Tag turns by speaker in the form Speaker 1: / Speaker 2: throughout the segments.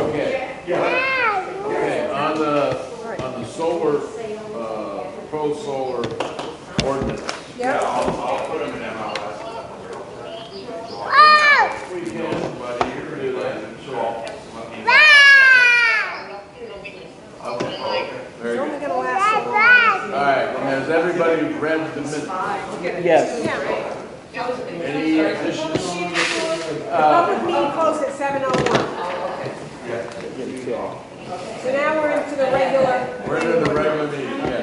Speaker 1: uh, ordinance.
Speaker 2: Yeah.
Speaker 1: I'll, I'll put them in MLS.
Speaker 3: Oh!
Speaker 1: We can, but you can do that, so I'll.
Speaker 3: Wow!
Speaker 1: Okay, okay.
Speaker 2: It's
Speaker 4: Very
Speaker 2: only
Speaker 4: good.
Speaker 2: gonna
Speaker 3: That's
Speaker 2: last
Speaker 3: right.
Speaker 4: All right, and has everybody read the minutes?
Speaker 2: so long.
Speaker 5: Yes.
Speaker 4: Any additions? Uh,
Speaker 2: Public meeting closed at seven oh one. So now we're into the regular.
Speaker 4: We're in the regular meeting, yeah.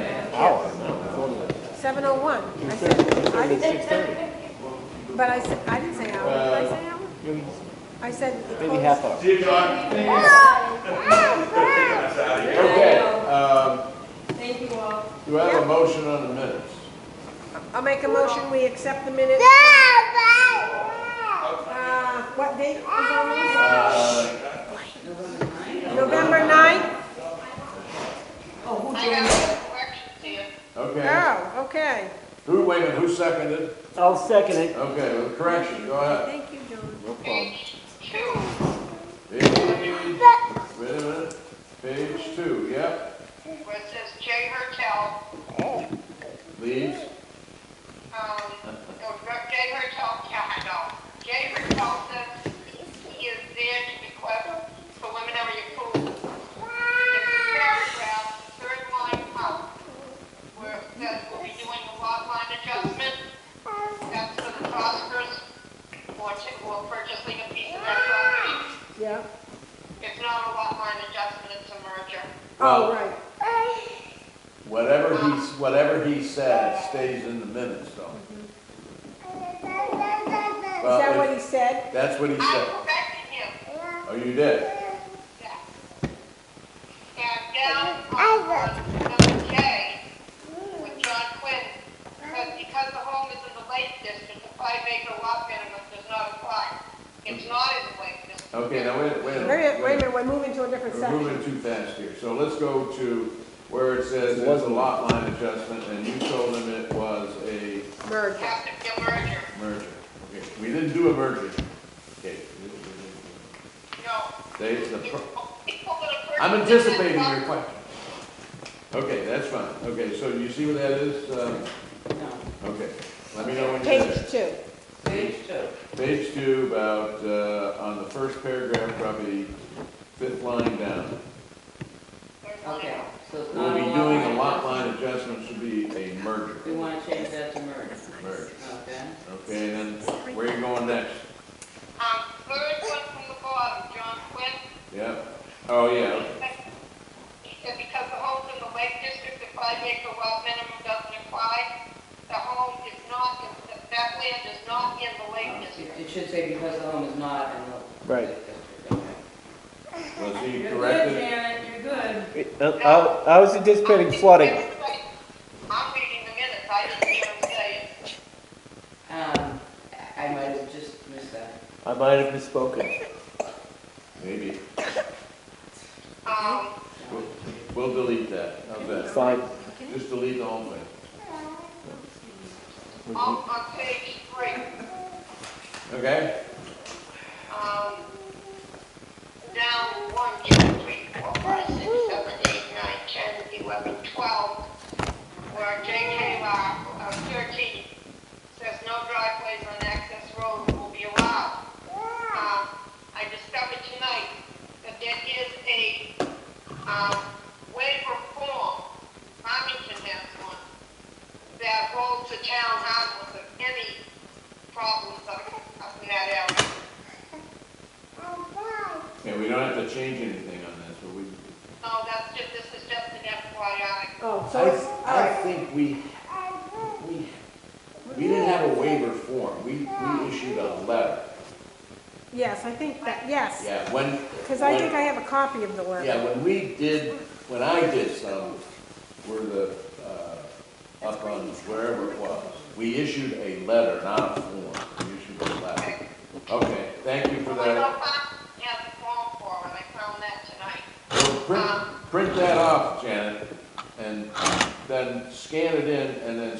Speaker 2: Seven oh one. I said, I didn't. But I said, I didn't say hour, did I say hour? I said. it
Speaker 5: Maybe
Speaker 2: closed-
Speaker 5: half hour.
Speaker 1: See you, John. That's out of here.
Speaker 4: Okay, um,
Speaker 6: Thank you all.
Speaker 4: do I have a motion on the minutes?
Speaker 2: I'll make a motion, we accept the minutes.
Speaker 3: That's
Speaker 2: Uh, what date is on
Speaker 4: Uh,
Speaker 2: this? November ninth?
Speaker 4: Okay,
Speaker 2: Oh, okay.
Speaker 4: who, wait a minute, who seconded?
Speaker 5: I'll second it.
Speaker 4: Okay, with correction, go ahead.
Speaker 2: Thank you, John.
Speaker 5: No problem.
Speaker 4: Page, wait a minute, page two, yep,
Speaker 7: Where it says J Hertel,
Speaker 4: leaves.
Speaker 7: um, no, not J Hertel, yeah, no. J Hertel says he is there to request preliminary approval. In the paragraph, third line out, where it says we'll be doing a lot line adjustment, that's for the Prospers, or to, or purchasing a piece of that property.
Speaker 2: Yeah.
Speaker 7: It's not a lot line adjustment, it's a merger.
Speaker 2: Oh,
Speaker 4: Well,
Speaker 2: right.
Speaker 4: Whatever he, whatever he said stays in the minutes, though.
Speaker 2: Is
Speaker 4: Well,
Speaker 2: that
Speaker 4: if-
Speaker 2: what he said?
Speaker 4: That's what he
Speaker 7: I
Speaker 4: said.
Speaker 7: corrected him.
Speaker 4: Oh, you did?
Speaker 7: Yeah. And down on number J, with John Quinn, says because the home is in the Lake District, the five acre lot minimum does not apply. It's not in the Lake District.
Speaker 4: Okay, now wait, wait a
Speaker 2: Wait a
Speaker 4: minute.
Speaker 2: minute, wait a minute, we're moving to a different
Speaker 4: We're
Speaker 2: section.
Speaker 4: moving too fast here. So let's go to where it says there's a lot line adjustment and you told him it was a
Speaker 2: Merge.
Speaker 7: Have to be a merger.
Speaker 4: merger. Okay, we didn't do a merger. Okay.
Speaker 7: No.
Speaker 4: They, the,
Speaker 7: It's
Speaker 4: pro-
Speaker 7: people that are
Speaker 4: I'm
Speaker 7: purchasing
Speaker 4: anticipating
Speaker 7: that
Speaker 4: your
Speaker 7: lot-
Speaker 4: question. Okay, that's fine. Okay, so you see what that is? Uh, Okay, let me know when you're there.
Speaker 2: Page two.
Speaker 4: Page two, about, uh, on the first paragraph, probably fifth line down.
Speaker 7: Third line
Speaker 8: Okay,
Speaker 7: out.
Speaker 8: so it's
Speaker 4: We'll
Speaker 8: not
Speaker 4: be
Speaker 8: a
Speaker 4: doing a lot
Speaker 8: lot line.
Speaker 4: line adjustment should be a merger.
Speaker 8: We want to change that to merge.
Speaker 4: Merge.
Speaker 8: Okay.
Speaker 4: Okay, and then where are you going next?
Speaker 7: Um, third one from the bottom, John Quinn,
Speaker 4: Yep. Oh, yeah.
Speaker 7: that because the homes in the Lake District, the five acre lot minimum doesn't apply, the home is not, in- that land is not in the Lake
Speaker 8: Um,
Speaker 7: District.
Speaker 8: It it should say because the home is not in the.
Speaker 5: Right.
Speaker 8: Okay.
Speaker 4: Was he corrected?
Speaker 6: Janet, you're good.
Speaker 5: Uh, I I was anticipating flooding.
Speaker 7: I'm reading the minutes, I didn't hear him say it.
Speaker 8: Um, I might have just missed that.
Speaker 5: I might have misspoken.
Speaker 4: Maybe.
Speaker 7: Um,
Speaker 4: We'll- We'll delete that. How's that?
Speaker 5: Fine.
Speaker 4: Just delete the whole thing.
Speaker 7: on, on page three,
Speaker 4: Okay?
Speaker 7: um, down one, two, three, four, five, six, seven, eight, nine, ten, eleven, twelve, where JK lot, uh, thirteen, says no driveways on access roads will be allowed. Um, I discovered tonight that there is a, um, waiver form, Farmington has one, that holds the town harmless of any problems up, up in that area.
Speaker 4: Okay, we don't have to change anything on this, but we.
Speaker 7: No, that's just, this is just an FYI.
Speaker 2: Oh, so it's,
Speaker 4: I
Speaker 2: oh,
Speaker 4: think we, we, we didn't have a waiver form. We, we issued a letter.
Speaker 2: yes, I think that, yes.
Speaker 4: Yeah, when.
Speaker 2: Because I
Speaker 4: when-
Speaker 2: think I have a copy of the letter.
Speaker 4: Yeah, when we did, when I did some, were the, uh, up on wherever it was, we issued a letter, not a form, we issued a letter. Okay, thank you for
Speaker 7: Well,
Speaker 4: that.
Speaker 7: I don't find, yeah, the form for it, I found that tonight.
Speaker 4: So Print, print that off, Janet, and then scan it in, and then